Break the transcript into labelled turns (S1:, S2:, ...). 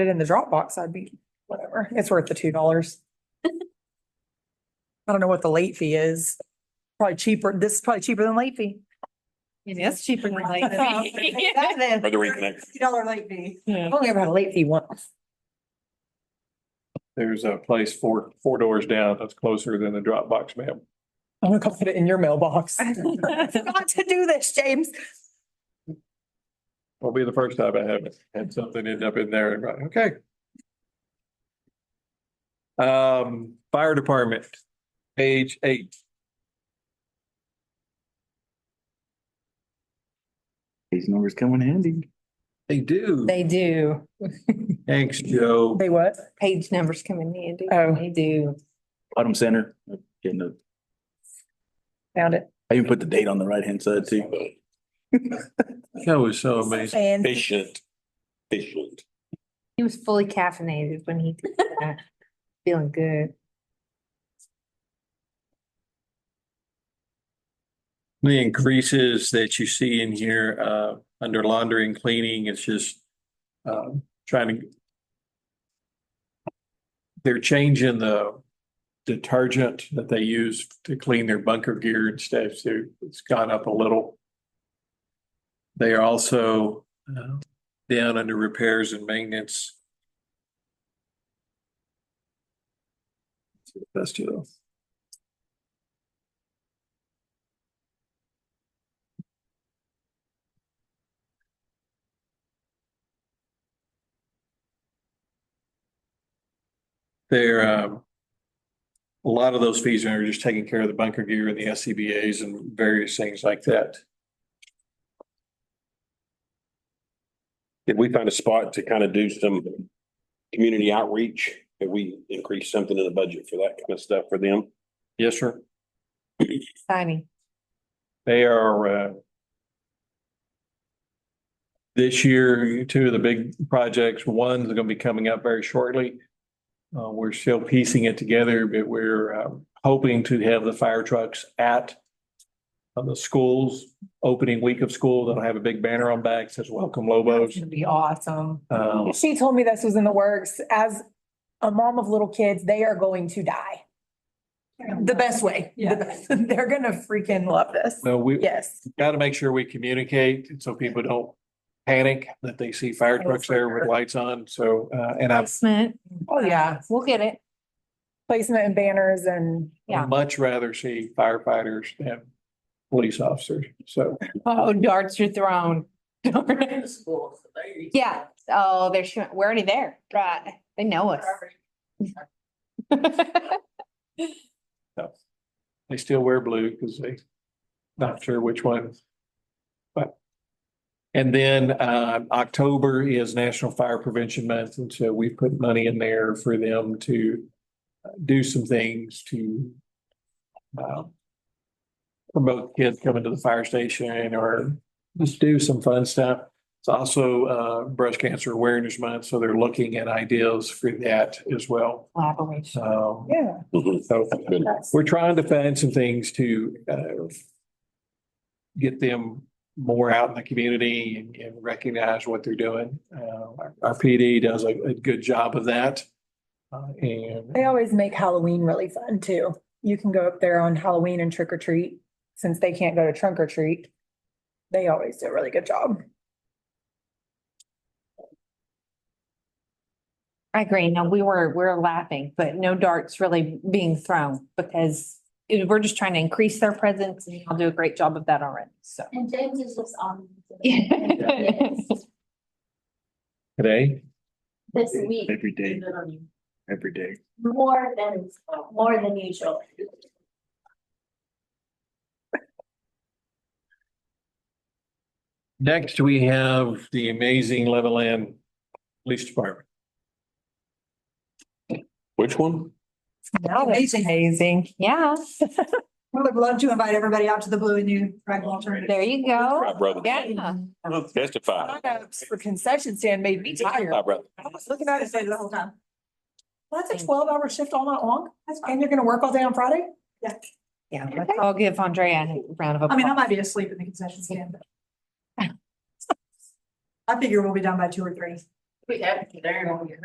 S1: it in the Dropbox, I'd be, whatever, it's worth the two dollars. I don't know what the late fee is, probably cheaper, this is probably cheaper than late fee.
S2: Yes, cheaper than like.
S3: Whether we connect.
S1: Dollar late fee. I've only ever had a late fee once.
S4: There's a place four, four doors down that's closer than the Dropbox map.
S1: I'm gonna go put it in your mailbox. Got to do this, James.
S4: Will be the first time I haven't had something end up in there and right, okay. Um, fire department, page eight.
S5: These numbers come in handy.
S4: They do.
S2: They do.
S4: Thanks, Joe.
S1: They what?
S2: Page numbers come in handy.
S1: Oh.
S2: They do.
S5: Bottom center, getting the,
S1: Found it.
S5: I even put the date on the right hand side too.
S4: That was so amazing.
S1: And
S3: Patient. Patient.
S2: He was fully caffeinated when he did that. Feeling good.
S4: The increases that you see in here, uh, under laundry and cleaning, it's just, um, trying to. They're changing the detergent that they use to clean their bunker gear and stuff, so it's gone up a little. They are also, uh, down under repairs and maintenance. That's too though. They're, um, a lot of those fees are just taking care of the bunker gear and the SCBA's and various things like that.
S3: Did we find a spot to kind of do some community outreach? Did we increase something in the budget for that kind of stuff for them?
S4: Yes, sir.
S2: Exciting.
S4: They are, uh, this year, two of the big projects, one's going to be coming up very shortly. Uh, we're still piecing it together, but we're, um, hoping to have the fire trucks at uh, the schools, opening week of school. They'll have a big banner on back says welcome
S1: it's
S4: Lobos.
S1: gonna be awesome.
S4: Um,
S1: She told me this was in the works. As a mom of little kids, they are going to die. The best way. The best. They're gonna freaking love this.
S4: No, we
S1: Yes.
S4: got to make sure we communicate so people don't panic that they see fire
S1: Oh,
S4: trucks
S1: for
S4: there with
S1: sure.
S4: lights on. So, uh, and I'd
S2: Placement.
S1: Oh, yeah.
S2: We'll get it.
S1: Placement and banners and,
S2: Yeah.
S4: much rather see firefighters than police officers. So
S2: Oh, darts your throne. Yeah. Oh, they're, shoo- we're already there. Right. They know us.
S4: they still wear blue because they not sure which one. But and then, uh, October is National Fire Prevention Month. And so we put money in there for them to uh, do some things to uh, promote kids coming to the fire station or just do some fun stuff. It's also uh, Breast Cancer Awareness Month, so they're looking at ideas for that as well.
S2: Collaboration.
S4: So
S1: yeah.
S3: Mhm.
S4: so
S3: Good.
S1: that's-
S4: we're trying to find some things to uh, get them more out in the community and- and recognize what they're doing. Uh, Our our PD does a a good job of that. Uh, And
S1: They always make Halloween really fun too. You can go up there on Halloween and trick or treat, since they can't go to trunk or treat. They always do a really good job.
S2: I agree. No, we were, we're laughing, but no darts really being thrown because it- we're just trying to increase their presence and I'll do a great job of that already. So.
S6: And James is just on.
S2: Yes.
S4: today,
S6: This week.
S5: Every day, every day.
S6: More than, more than usual.
S4: next we have the amazing Levelland Police Department.
S3: Which one?
S1: Amazing. Amazing.
S2: Yeah,
S7: We would love to invite everybody out to the Blue and You Rec Alternative.
S2: there you go.
S3: My brother.
S2: Yeah.
S3: Testify.
S1: Lineups For concession stand made me tired.
S3: My brother.
S1: I was looking at it "Oh, saying,
S7: The whole time.
S1: well, that's a twelve hour shift all night long, and you're gonna work all day on Friday?
S2: Yeah, let's all give Andrea a round of applause.
S7: I mean, I might be asleep in the concession stand. but- I figure we'll be done by two or three.
S6: We had it there on your.